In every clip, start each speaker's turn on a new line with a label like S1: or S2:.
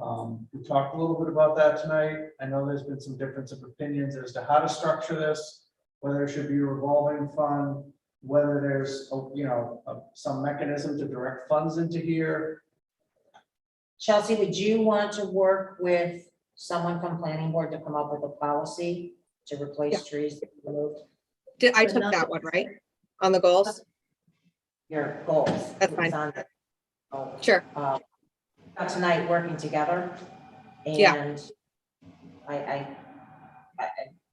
S1: Um, we talked a little bit about that tonight. I know there's been some difference of opinions as to how to structure this, whether it should be a revolving fund, whether there's, oh, you know, uh, some mechanism to direct funds into here.
S2: Chelsea, would you want to work with someone from planning board to come up with a policy to replace trees that you removed?
S3: Did, I
S4: But
S3: took that
S4: nothing-
S3: one, right? On the goals?
S2: Your goals.
S3: That's fine.
S2: It's on the- oh,
S3: Sure.
S2: uh, Not tonight, working together.
S3: Yeah.
S2: And I, I, I,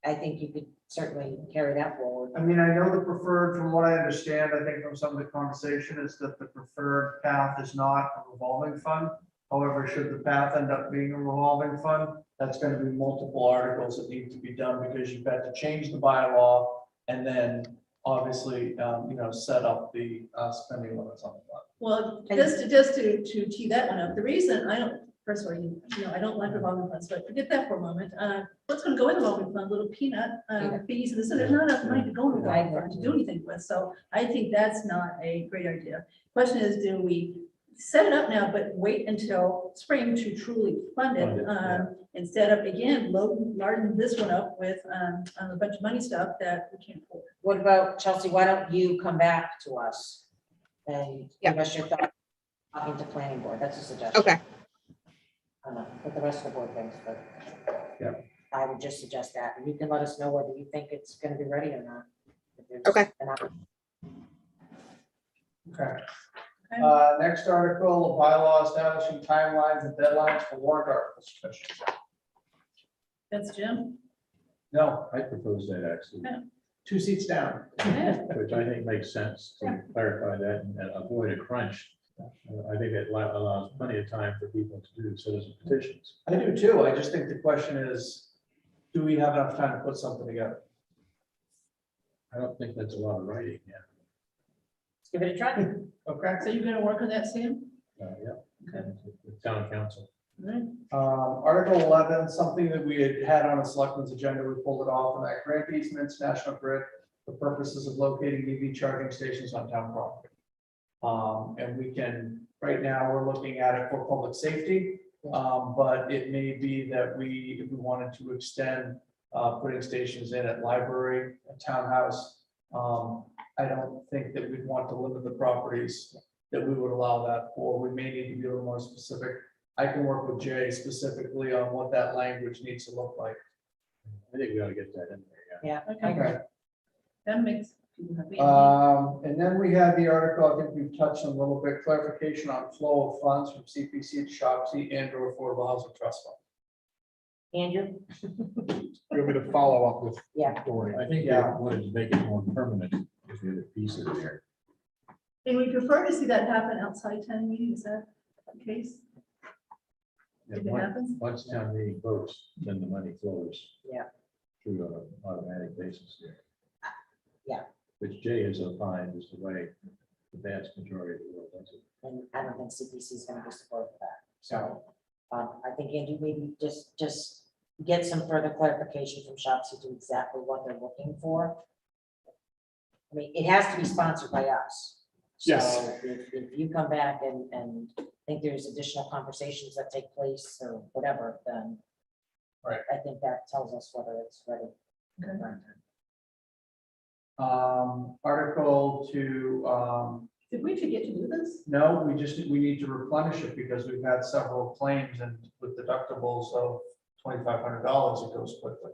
S2: I- I think you could certainly carry that forward.
S1: I mean, I know the preferred, from what I understand, I think from some of the conversation is that the preferred path is not a revolving fund. However, should the path end up being a revolving fund, that's gonna be multiple articles that need to be done because you've got to change the bylaw. And then obviously, um, you know, set up the, uh, spending limits on the fund.
S4: Well,
S2: And-
S4: just to, just to, to tee that one up, the reason I don't, first of all, you know, I don't like revolving funds, but forget that for a moment. Uh, what's gonna go in the revolving fund, little peanut, uh,
S2: Yeah.
S4: fees, and so there's not enough money to go in the revolving
S2: Right.
S4: fund to do anything with, so I think that's not a great idea. Question is, do we set it up now, but wait until spring to truly
S1: Fund
S4: fund
S1: it,
S4: it?
S1: yeah.
S4: Um, instead of, again, loading, larding this one up with, um, a bunch of money stuff that we can't afford.
S2: What about, Chelsea, why don't you come back to us and give us your thought, talking to planning board, that's a suggestion.
S3: Okay,
S2: I don't know what the rest of the board thinks, but.
S1: Yeah.
S2: I would just suggest that, and you can let us know whether you think it's gonna be ready or not. If there's
S3: Okay.
S2: an op-
S1: Okay.
S4: Okay.
S1: Uh, next article, a bylaw establishing timelines and deadlines for warrant articles.
S4: That's Jim?
S1: No,
S5: I propose that actually,
S1: two seats down.
S4: Yeah.
S5: which I think makes sense to clarify that and avoid a crunch. Uh, I think it li- allows plenty of time for people to do citizen petitions.
S1: I do too. I just think the question is, do we have enough time to put something together?
S5: I don't think that's a lot of writing, yeah.
S2: Let's Give it a try.
S1: Okay.
S4: So you're gonna work on that, Sam?
S5: Uh, Yeah. And the Town council.
S4: All right.
S1: Um, Article eleven, something that we had had on a selectmen's agenda, we pulled it off, and that grant easements, National Grid, for purposes of locating EV charging stations on town property. Um, and we can, right now, we're looking at it for public safety, um, but it may be that we, if we wanted to extend uh, putting stations in at library, at townhouse, um, I don't think that we'd want to limit the properties that we would allow that for. We may need to be a little more specific I can work with Jay specifically on what that language needs to look like.
S5: I think we ought to get that in there,
S2: Yeah.
S4: Okay. That makes people happy.
S1: Um, and then we had the article, I think we've touched on a little bit, clarification on flow of funds from CPC to Shopsy and or Affordable Housing Trust Fund.
S2: Andrew,
S6: You want me to follow up with?
S2: Yeah.
S6: Gloria?
S5: yeah. I think
S1: Yeah.
S5: that would make it more permanent if you had a piece of there.
S4: And we prefer to see that happen outside town meeting, is that the case?
S5: And
S4: If it
S5: once-
S4: happens?
S5: Once town meeting votes, then the money flows.
S2: Yeah.
S5: Through on an automatic basis there.
S2: Yeah.
S5: Which Jay has opined is the way the vast majority of the world does it.
S2: and I don't think CPC is gonna be supportive of that, so. Um, I think Andrew, maybe just, just get some further clarification from shops to do exactly what they're looking for. I mean, it has to be sponsored by us.
S6: Yes.
S2: So If, if you come back and, and think there's additional conversations that take place or whatever, then.
S1: Right.
S2: I think that tells us whether it's ready.
S4: Okay.
S1: Um, article to, um,
S4: Did we forget to do this?
S1: no, we just, we need to replenish it because we've had several claims and with deductibles of twenty-five hundred dollars, it goes quickly.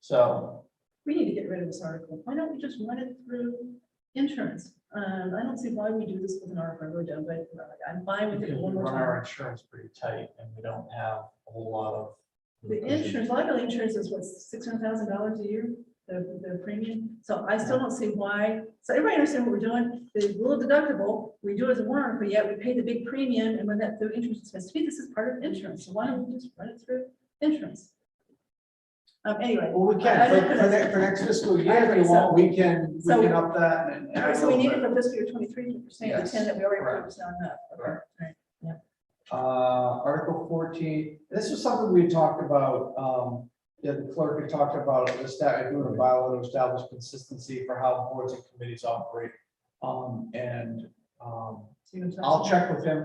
S1: So
S4: We need to get rid of this article. Why don't we just run it through insurance? Um, I don't see why we do this with an article, I really don't, but uh, I'm fine with
S1: Because
S4: it
S1: we
S4: one more
S1: run
S4: time.
S1: our insurance pretty tight and we don't have a whole lot of.
S4: The insurance, liability insurance is what, six hundred thousand dollars a year, the, the premium? So I still don't see why, so everybody understand what we're doing, the little deductible, we do it as a warrant, but yet we pay the big premium and when that, the insurance is supposed to be, this is part of insurance, so why don't we just run it through insurance? Um, anyway,
S1: Well, we can, for, for next, for next fiscal year, if you want, we can, we can up that and. and add a
S4: so we
S1: little
S4: need it
S1: bit.
S4: for fiscal year twenty-three percent,
S1: Yes,
S4: the ten that we already
S1: correct.
S4: approved is not enough. Okay,
S1: Correct.
S4: all right.
S1: Uh, Article fourteen, this was something we had talked about, um, yeah, the clerk had talked about, this, that, doing a bylaw to establish consistency for how boards and committees operate. Um, and, um,
S4: So you can-
S1: I'll check with him